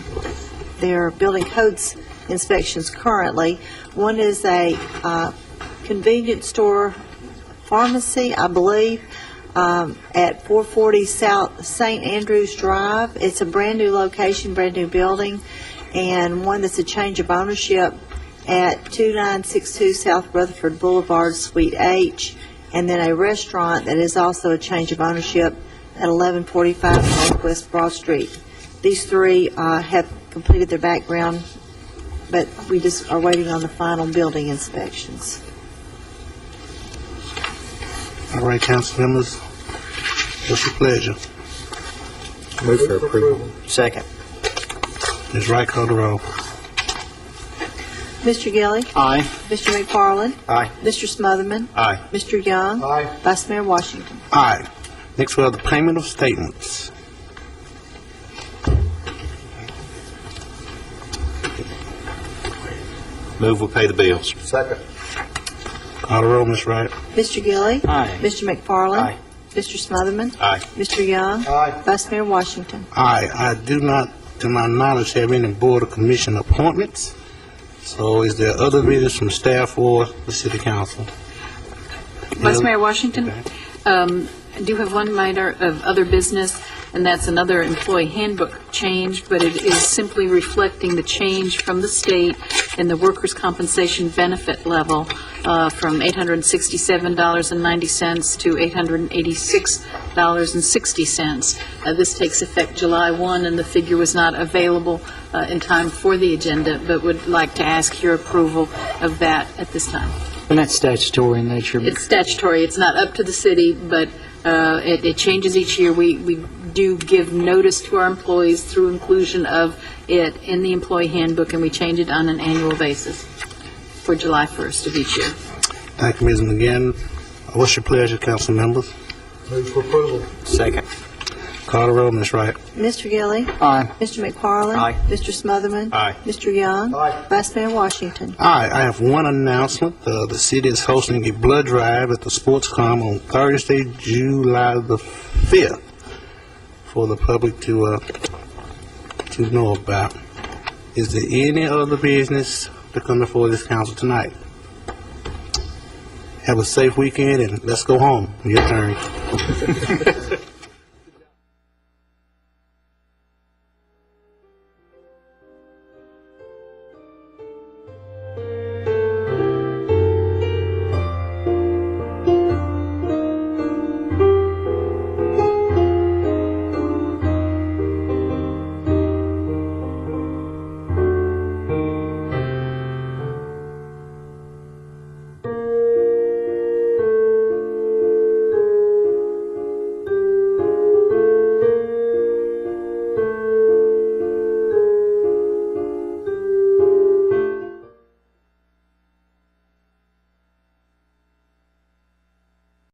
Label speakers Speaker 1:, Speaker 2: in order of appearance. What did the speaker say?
Speaker 1: their building codes inspections currently. One is a uh, convenience store pharmacy, I believe, um, at 440 South St. Andrews Drive. It's a brand-new location, brand-new building, and one that's a change of ownership at 2962 South Rutherford Boulevard, Suite H, and then a restaurant that is also a change of ownership at 1145 Northwest Broad Street. These three uh, have completed their background, but we just are waiting on the final building inspections.
Speaker 2: All right, council members, what's your pleasure?
Speaker 3: Move for approval.
Speaker 4: Second.
Speaker 2: Ms. Wright, call the roll.
Speaker 1: Mr. Gilly,
Speaker 4: Aye.
Speaker 1: Mr. McFarland,
Speaker 4: Aye.
Speaker 1: Mr. Smotherman,
Speaker 2: Aye.
Speaker 1: Mr. Young.
Speaker 3: Aye.
Speaker 1: Vice Mayor Washington.
Speaker 2: Aye. Next, we have the payment of statements.
Speaker 3: Move we pay the bills. Second.
Speaker 2: Call the roll, Ms. Wright.
Speaker 1: Mr. Gilly.
Speaker 4: Aye.
Speaker 1: Mr. McFarland.
Speaker 4: Aye.
Speaker 1: Mr. Smotherman.
Speaker 3: Aye.
Speaker 1: Mr. Young.
Speaker 3: Aye.
Speaker 1: Vice Mayor Washington.
Speaker 2: Aye, I do not, to my knowledge, have any board or commission appointments. So is there other business from staff or the city council?
Speaker 5: Vice Mayor Washington,
Speaker 2: Okay.
Speaker 5: um, I do have one minor of other business, and that's another employee handbook change, but it is simply reflecting the change from the state in the workers' compensation benefit level uh, from $867.90 to $886.60. Uh, This takes effect July 1, and the figure was not available uh, in time for the agenda, but would like to ask your approval of that at this time.
Speaker 4: And that's statutory in nature.
Speaker 5: It's statutory, it's not up to the city, but uh, it it changes each year. We we do give notice to our employees through inclusion of it in the employee handbook, and we change it on an annual basis for July 1st of each year.
Speaker 2: Thank you, Ms. McGinn. What's your pleasure, council members?
Speaker 3: Move for approval.
Speaker 4: Second.
Speaker 2: Call the roll, Ms. Wright.
Speaker 1: Mr. Gilly.
Speaker 4: Aye.
Speaker 1: Mr. McFarland.
Speaker 4: Aye.
Speaker 1: Mr. Smotherman.
Speaker 3: Aye.
Speaker 1: Mr. Young.
Speaker 3: Aye.
Speaker 1: Vice Mayor Washington.
Speaker 2: Hi, I have one announcement. Uh, the city is hosting a blood drive at the Sports Com on Thursday, July the 5th, for the public to, uh, to know about. Is there any other business to come before this council tonight? Have a safe weekend and let's go home. Your turn.